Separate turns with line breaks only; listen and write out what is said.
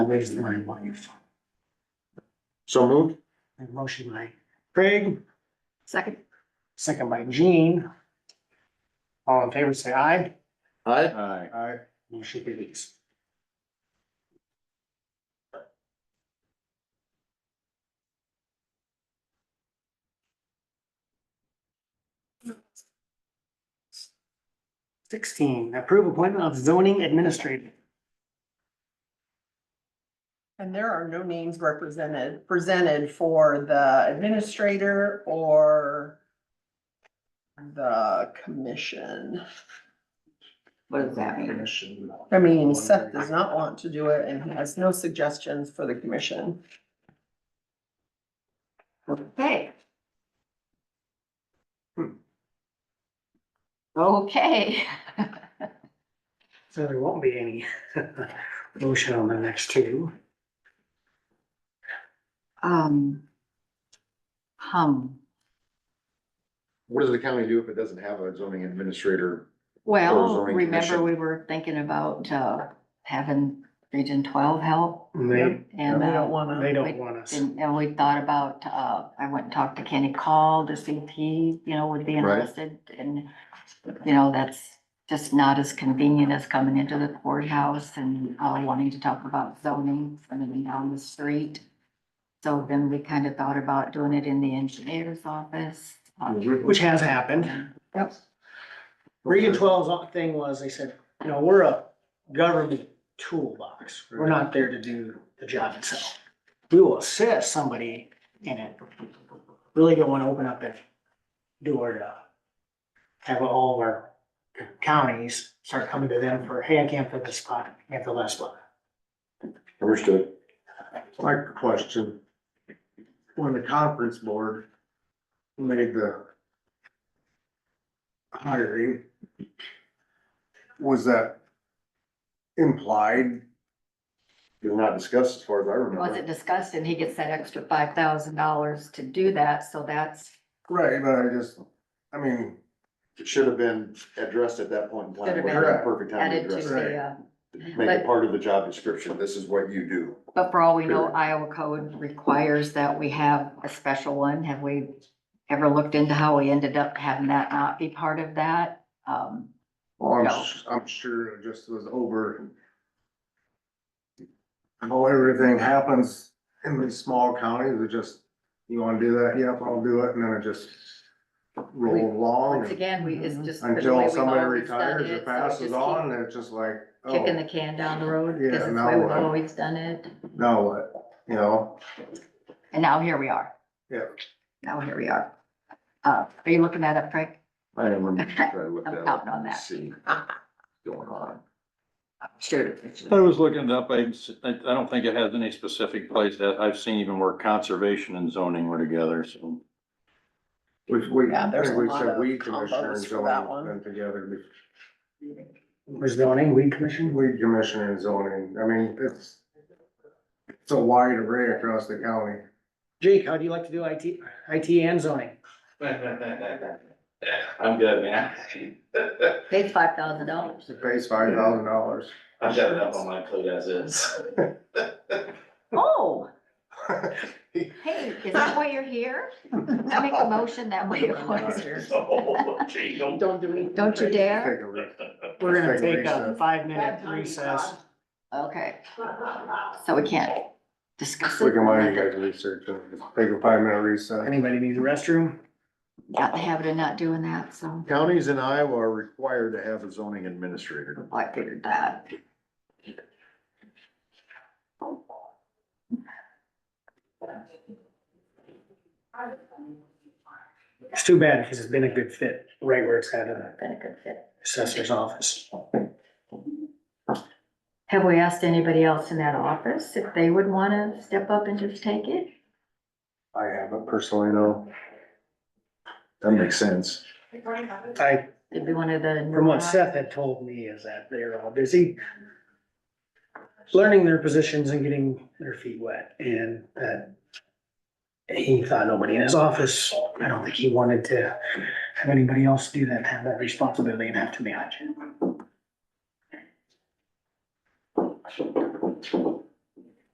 raised my wife.
So moved?
A motion by Craig,
Second.
second by Jean. All in favor, say aye.
Aye.
Aye.
Aye. Motion carries. Sixteen, approve appointment of zoning administrator.
And there are no names represented, presented for the administrator or the commission.
What does that mean?
I mean, Seth does not want to do it and he has no suggestions for the commission.
Okay. Hmm. Okay.
So there won't be any motion on the next two.
Um. Hum,
What does the county do if it doesn't have a zoning administrator? Or
well,
zoning
remember
commission.
we were thinking about, uh, having Region Twelve help
And They,
and,
We don't
uh,
wanna.
they don't want us.
and and we thought about, uh, I went and talked to Kenny Call to see if he, you know, would be
Right.
interested and, you know, that's just not as convenient as coming into the courthouse and, uh, wanting to talk about zoning from and down the street. So then we kind of thought about doing it in the engineer's office. uh,
Which has happened.
Yep.
Region 12's thing was, they said, you know, we're a government toolbox. We're not there to do the job itself. We will assist somebody in it. Really don't want to open up that door to have all of our counties start coming to them for, hey, I can't fill this spot, I can't fill that spot.
Understood. Like question. When the conference board made the hiring, was that implied? Did not discussed as far as I
Was it
remember.
discussed and he gets that extra five thousand dollars to do that, so that's,
Right, but I just, I mean. It should have been addressed at that point in time.
Should've
Wasn't
been
that Perfect time to
added to
address
the,
it.
uh,
Make it
but-
part of the job description. This is what you do.
But for all we know,
Period.
Iowa code requires that we have a special one. Have we ever looked into how we ended up having that not be part of that? Um,
Well, I'm,
No.
s- I'm sure it just was over. How everything happens in these small counties, it just, you wanna do that, yep, I'll do it, and then it just
We-
roll along.
once
and-
again, we, it's just. the way
Until
we've
somebody
always done
retires or
it, so
passes
just
on, and it's just like,
keep Kicking the
oh,
can down the road,
Yeah,
because it's the
now
way we've
what?
always done it.
now what, you know?
And now here we are.
Yeah.
Now here we are. Uh, are you looking that up, Craig?
I remember,
I
looked
I'm counting on that.
see going on.
Sure.
I was looking it up. I, I don't think it has any specific place that I've seen even where conservation and zoning were together, so.
Which we,
Yeah,
I
there's
think
a
we
lot
said
of
we commissioner and
combos for
zoning
that one.
been together before.
Was zoning, weed commission?
Weed commission and zoning, I mean, it's, it's a wide array across the county.
Jake, how do you like to do IT, IT and zoning?
I'm good, man.
Paid five thousand dollars.
It pays five thousand dollars.
I've got enough on my plate as is.
Oh, hey, is that why you're here? I make a motion that we appoint.
Oh, gee, don't-
Don't do it.
Don't you dare.
We're gonna
Take a
take a
recess.
five minute recess.
Okay, so we can't discuss
We
it.
can mind you guys research and take a five minute recess.
Anybody need a restroom?
Got the habit of not doing that, so
Counties in Iowa are required to have a zoning administrator.
I figured that.
It's too bad because it's been a good fit, right where it's at in the
Been a good fit.
assessor's office.
Have we asked anybody else in that office if they would wanna step up and just take it?
I haven't personally, no. That makes sense.
I,
It'd be one of the.
from what Seth had told me is that they're all busy learning their positions and getting their feet wet and that he thought nobody in his office, I don't think he wanted to have anybody else do that, have that responsibility and have to manage it.